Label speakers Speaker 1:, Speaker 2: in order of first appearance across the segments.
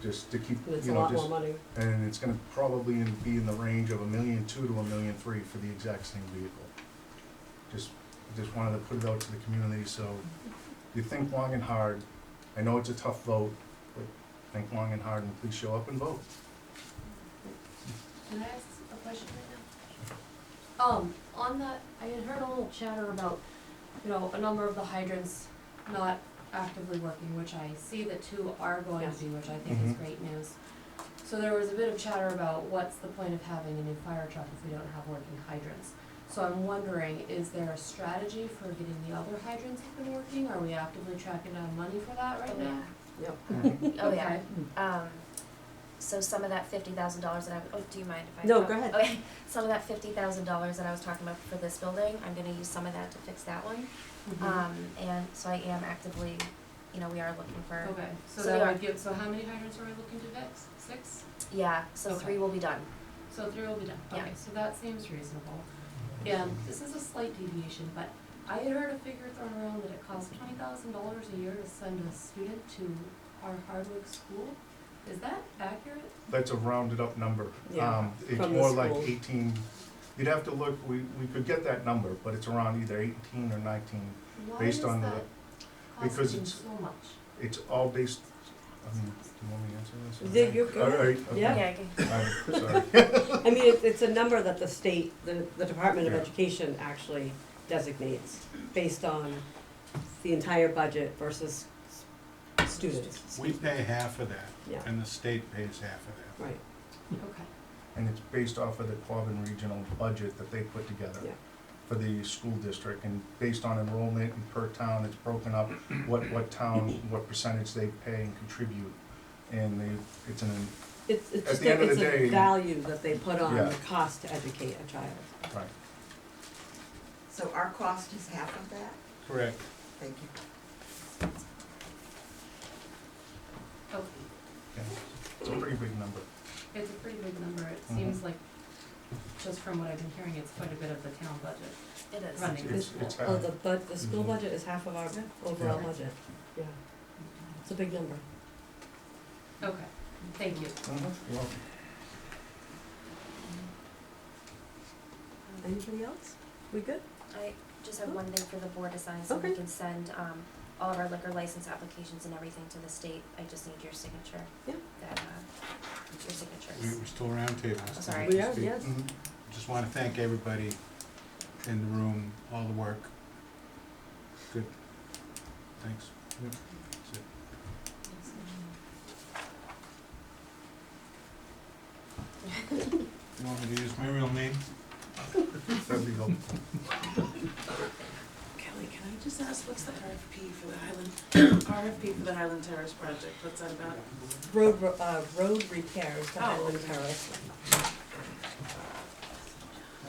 Speaker 1: just to keep,
Speaker 2: It's
Speaker 1: you
Speaker 2: a
Speaker 1: know,
Speaker 2: lot
Speaker 1: just,
Speaker 2: more money.
Speaker 1: and it's gonna probably in- be in the range of a million two to a million three for the exact same vehicle. Just, just wanted to put it out to the community, so you think long and hard. I know it's a tough vote, but think long and hard and please show up and vote.
Speaker 3: Can I ask a question right now? Um, on that, I had heard a little chatter about, you know, a number of the hydrants not actively working, which I see that two are going
Speaker 2: Yes.
Speaker 3: to, which I think is
Speaker 1: Mhm.
Speaker 3: great news. So there was a bit of chatter about what's the point of having a new fire truck if we don't have working hydrants? So I'm wondering, is there a strategy for getting the other hydrants up and working? Are we actively tracking down money for that right now?
Speaker 2: Yep.
Speaker 4: Oh, yeah.
Speaker 3: Okay.
Speaker 4: Um, so some of that fifty thousand dollars that I, oh, do you mind if I?
Speaker 2: No,
Speaker 4: talk?
Speaker 2: go ahead.
Speaker 4: Okay, some of that fifty thousand dollars that I was talking about for this building, I'm gonna use some of that to fix that one.
Speaker 2: Mm-hmm.
Speaker 3: Mhm.
Speaker 4: Um, and so I am actively, you know, we are looking for,
Speaker 3: Okay, so
Speaker 4: So
Speaker 3: that
Speaker 4: we are-
Speaker 3: would give, so how many hydrants are we looking to fix? Six?
Speaker 4: yeah, so
Speaker 3: Okay.
Speaker 4: three will be done.
Speaker 3: So three will be done,
Speaker 4: Yeah.
Speaker 3: okay, so that seems reasonable.
Speaker 1: Mm-hmm.
Speaker 3: And this is a slight deviation, but I had heard a figure thrown around that it costs twenty thousand dollars a year to send a student to our Hardwick school. Is that accurate?
Speaker 1: That's a rounded up number.
Speaker 2: Yeah,
Speaker 1: Um, It's
Speaker 2: from the
Speaker 1: more like
Speaker 2: school.
Speaker 1: eighteen, you'd have to look, we, we could get that number, but it's around either eighteen or nineteen.
Speaker 3: Why is
Speaker 1: Based on the-
Speaker 3: that
Speaker 1: because
Speaker 3: costing
Speaker 1: it's-
Speaker 3: so much?
Speaker 1: It's all based, I mean, do you want me to answer this? or-
Speaker 2: Yeah, you go
Speaker 1: All
Speaker 2: ahead.
Speaker 1: right, okay.
Speaker 2: Yeah.
Speaker 4: Yeah, I can-
Speaker 1: I'm sorry.
Speaker 2: I mean, it's, it's a number that the state, the, the Department of
Speaker 1: Yeah.
Speaker 2: Education actually designates based on the entire budget versus s- students.
Speaker 5: We pay half of that,
Speaker 2: Yeah,
Speaker 5: and the state pays half of that.
Speaker 2: right.
Speaker 3: Okay,
Speaker 1: And it's based off of the Quabbin Regional budget that they put together
Speaker 2: Yeah.
Speaker 1: for the school district, and based on enrollment and per town, it's broken up, what, what town, what percentage they pay and contribute. And they, it's an,
Speaker 2: It's, it's
Speaker 1: At
Speaker 2: just,
Speaker 1: the end
Speaker 2: a-
Speaker 1: of
Speaker 2: it's
Speaker 1: the
Speaker 2: a
Speaker 1: day-
Speaker 2: value that they put on
Speaker 1: Yeah.
Speaker 2: the cost to educate a child.
Speaker 1: right,
Speaker 6: So our cost is half of that?
Speaker 5: Correct.
Speaker 6: Thank you.
Speaker 3: okay,
Speaker 1: yeah. It's a pretty big number.
Speaker 3: it's a pretty big number, it
Speaker 1: Mhm.
Speaker 3: seems like, just from what I've been hearing, it's quite a bit of the town budget
Speaker 4: it is.
Speaker 3: running the
Speaker 1: It's-
Speaker 3: school.
Speaker 1: it's
Speaker 2: Oh,
Speaker 1: Uh,
Speaker 2: the, but the school
Speaker 1: mhm.
Speaker 2: budget is half of our overall
Speaker 1: Yeah.
Speaker 2: budget. Yeah, it's a big number.
Speaker 3: Okay, thank you.
Speaker 1: Mm-hmm. You're welcome.
Speaker 2: Anything else? We good?
Speaker 4: I just have one thing for the board to sign, so
Speaker 2: Okay.
Speaker 4: we can send, um, all of our liquor license applications and everything to the state, I just need your signature.
Speaker 2: Yeah.
Speaker 4: That, uh, your signatures.
Speaker 5: We- We're still roundtable.
Speaker 4: Oh, sorry.
Speaker 2: We are, yes.
Speaker 1: Mhm.
Speaker 5: Mm-hmm. Just want to thank everybody in the room, all the work. Good. Thanks.
Speaker 1: Yep.
Speaker 5: That's it. You want me to use my real name?
Speaker 1: That'd be helpful.
Speaker 7: Kelly, can I just ask, what's the RFP for the Highland, RFP for the Highland Terrace project, what's that about?
Speaker 2: Road, re- uh, road repairs to
Speaker 7: Oh,
Speaker 2: Highland
Speaker 7: okay.
Speaker 2: Terrace.
Speaker 5: I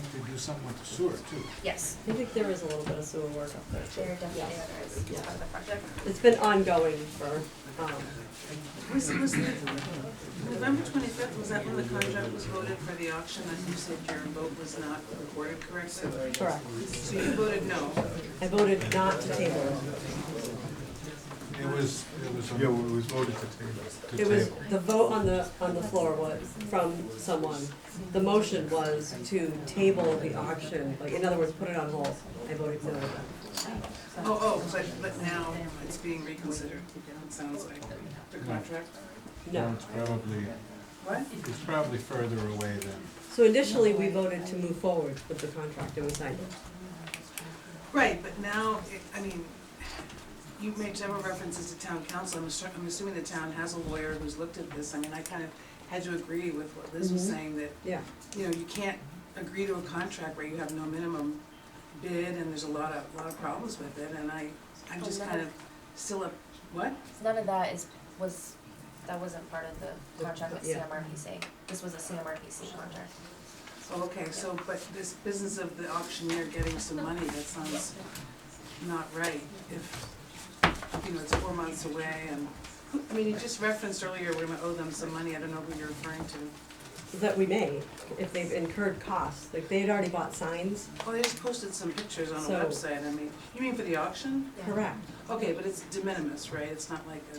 Speaker 5: think they do something with the sewer, too.
Speaker 4: Yes,
Speaker 2: I think there is a little bit of sewer work up there too.
Speaker 4: there definitely
Speaker 2: Yeah.
Speaker 4: are, it's
Speaker 2: Yeah.
Speaker 4: part of the project.
Speaker 2: It's been ongoing for, um,
Speaker 7: Was, was the, November twenty-fifth, was that when the contract was voted for the auction, and you said your vote was not recorded correctly?
Speaker 2: correct.
Speaker 7: So you voted no,
Speaker 2: I voted not to table
Speaker 5: It was, it was.
Speaker 1: Yeah, well, it was voted to table.
Speaker 2: it. It was, the vote on the, on the floor was, from someone, the motion was to table the auction, like, in other words, put it on hold. I voted no.
Speaker 7: oh, oh, but, but now it's being reconsidered, it sounds like, the contract.
Speaker 2: No.
Speaker 5: It's probably,
Speaker 7: What?
Speaker 5: it's probably further away than.
Speaker 2: So initially, we voted to move forward with the contract and we signed it.
Speaker 7: Right, but now, it- I mean, you've made several references to town council, I'm assu- I'm assuming the town has a lawyer who's looked at this, I mean, I kind of had to agree with what Liz was
Speaker 2: Mhm.
Speaker 7: saying, that,
Speaker 2: Yeah.
Speaker 7: you know, you can't agree to a contract where you have no minimum bid, and there's a lot of, lot of problems with it, and I, I'm just kind of still a, what?
Speaker 4: None of that is, was, that wasn't part of the contract with
Speaker 2: Yeah.
Speaker 4: CMRPC. This was a CMRPC contract.
Speaker 7: Oh, okay, so, but this business of the auctioneer getting some money, that sounds not right. If, you know, it's four months away and, I mean, you just referenced earlier, we're gonna owe them some money, I don't know who you're referring to.
Speaker 2: That we may, if they've incurred costs, like, they had already bought signs,
Speaker 7: Well, Oh, they just posted some pictures on a
Speaker 2: So-
Speaker 7: website, I mean, you mean for the auction?
Speaker 4: Yeah.
Speaker 2: correct?
Speaker 7: Okay, but it's de minimis, right? It's not like a